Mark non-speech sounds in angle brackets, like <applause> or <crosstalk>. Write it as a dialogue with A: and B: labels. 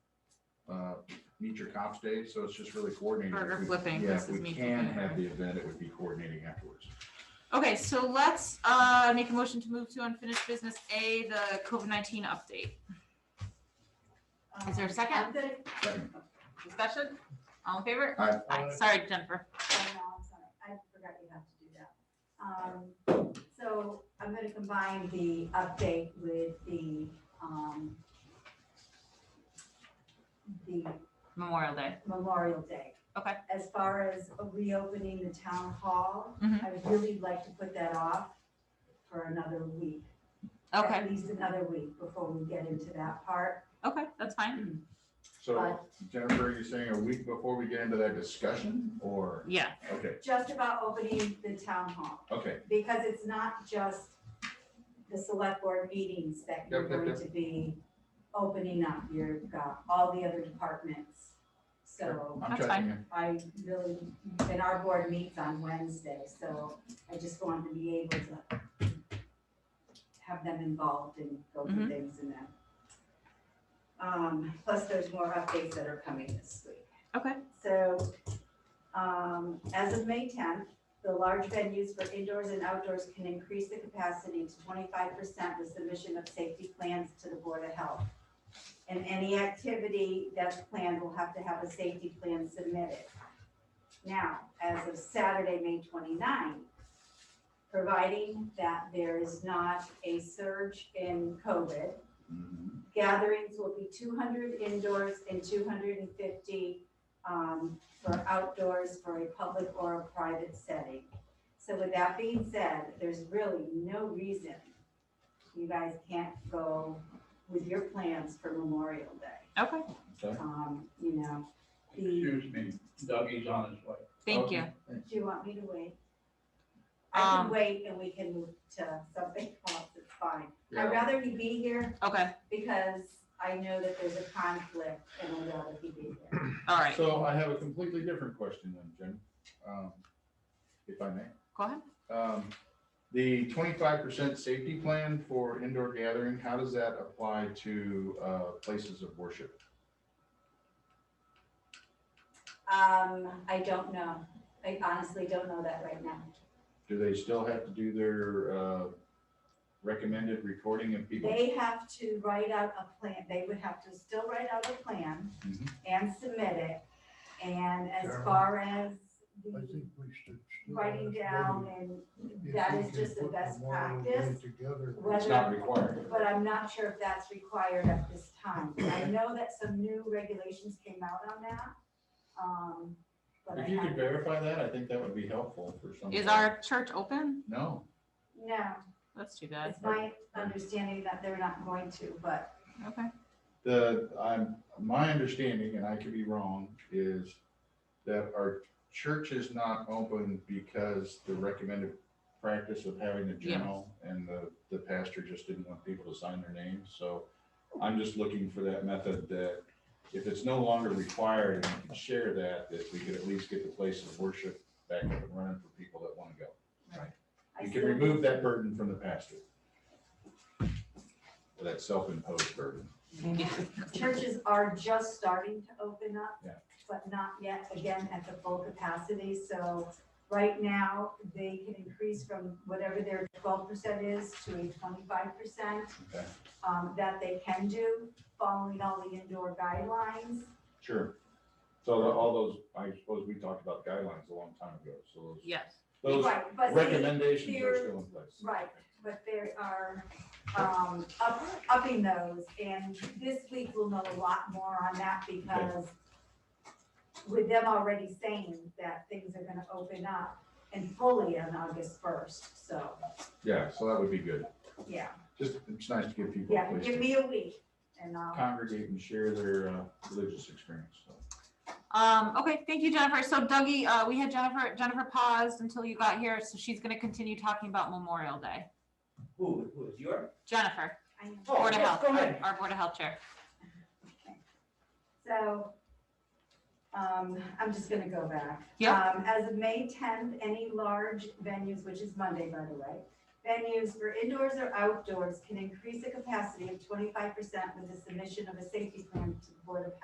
A: uh, Meet Your Cops Day, so it's just really coordinating.
B: Burger
A: If we-
B: flipping,
A: Yeah,
B: this
A: if
B: is
A: we
B: me
A: can
B: flipping,
A: have
B: right?
A: the event, it would be coordinating afterwards.
B: Okay, so let's uh, make a motion to move to unfinished business A, the COVID nineteen update. Is there a second?
C: I'm good.
A: Second,
B: Discussion? All in favor?
A: Aye.
B: Sorry, Jennifer.
C: Oh, no, I'm sorry. I forgot you have to do that. Um, So I'm going to combine the update with the, um, the
B: Memorial Day.
C: Memorial Day.
B: Okay.
C: As far as reopening the town hall,
B: Mhm.
C: I would really like to put that off for another week.
B: Okay,
C: At least another week before we get into that part.
B: okay, that's fine.
A: so
C: But
A: Jennifer, you're saying a week before we get into that discussion, or,
B: Yeah,
A: okay,
C: just about opening the town hall.
A: okay,
C: because it's not just the select board meetings that you're
A: Yep, yep,
C: going
A: yep.
C: to be opening up, you've got all the other departments. So
A: I'm
B: That's
A: checking in.
C: I really, and our board meets on Wednesday, so I just wanted to be able to have them involved and go through
B: Mhm.
C: things and that. Um, plus there's more updates that are coming this week.
B: Okay.
C: So, um, as of May tenth, the large venues for indoors and outdoors can increase the capacity to twenty-five percent with submission of safety plans to the Board of Health. And any activity that's planned will have to have a safety plan submitted. Now, as of Saturday, May 29, providing that there is not a surge in COVID,
A: Mhm.
C: gatherings will be two hundred indoors and two hundred and fifty um, for outdoors for a public or a private setting. So with that being said, there's really no reason you guys can't go with your plans for Memorial Day.
B: okay,
A: Okay.
C: Um, you know, the,
D: Excuse me, Dougie's on his way.
B: thank
A: Okay,
B: you.
A: thanks.
C: do you want me to wait? I
B: Um,
C: can wait and we can move to something <laughs> else, it's fine.
A: Yeah.
C: I'd rather you be here
B: Okay,
C: because I know that there's a conflict and I'd rather you be here.
B: all right, go
A: So I have a completely different question then, Jen, um, if I may.
B: ahead.
A: Um, The twenty-five percent safety plan for indoor gathering, how does that apply to uh, places of worship?
C: Um, I don't know. I honestly don't know that right now.
A: Do they still have to do their uh, recommended recording of people?
C: They have to write out a plan. They would have to still write out a plan
A: Mhm.
C: and submit it. And as
E: Carol.
C: far as
E: I
C: the
E: think we should. still
C: writing
E: ask
C: down
E: Debbie
C: and
E: if
C: that
E: we
C: is
E: can
C: just the
E: put
C: best
E: Memorial Day
C: practice,
E: Together.
C: whether-
A: It's not required.
C: but I'm not sure if that's required at this time. I know that some new regulations came out on that. Um, but I
A: If you could
C: haven't.
A: verify that, I think that would be helpful for some.
B: Is our church open?
A: No,
C: No,
B: That's too bad.
C: it's my understanding that they're not going to, but
B: Okay,
A: the, I'm, my understanding, and I could be wrong, is that our church is not open because the recommended practice of having the
B: Yes.
A: journal and the, the pastor just didn't want people to sign their names, so I'm just looking for that method that if it's no longer required and we can share that, that we could at least get the place of worship back up and running for people that want to go.
C: I
A: You
C: still.
A: can remove that burden from the pastor. That self-imposed burden.
C: Churches are just starting to open up.
A: Yeah.
C: But not yet, again, at the full capacity, so right now, they can increase from whatever their twelve percent is to a twenty-five percent.
A: Okay.
C: Um, that they can do, following all the indoor guidelines,
A: Sure. So the- all those, I suppose we talked about guidelines a long time ago, so
B: yes,
A: those,
C: right, but
A: those
C: they,
A: recommendations are
C: they're-
A: still in place.
C: right, but they are, um, up, upping those, and this week we'll know a lot more on that because with them already saying that things are gonna open up and fully on August first, so,
A: Yeah, so that would be good.
C: yeah,
A: Just, it's nice to give people
C: yeah,
A: a place
C: give
A: to
C: me a week and I'll,
A: congregate and share their uh, religious experience, so.
B: um, okay, thank you, Jennifer. So Dougie, uh, we had Jennifer, Jennifer paused until you got here, so she's gonna continue talking about Memorial Day.
D: Who, who is your?
B: Jennifer,
C: I know.
D: Oh,
B: Board of
D: go-
B: Health,
D: go ahead.
B: our Board of Health Chair.
C: So, um, I'm just gonna go back.
B: Yep.
C: Um, as of May tenth, any large venues, which is Monday, by the way, venues for indoors or outdoors can increase the capacity of twenty-five percent with the submission of a safety plan to the Board of Health.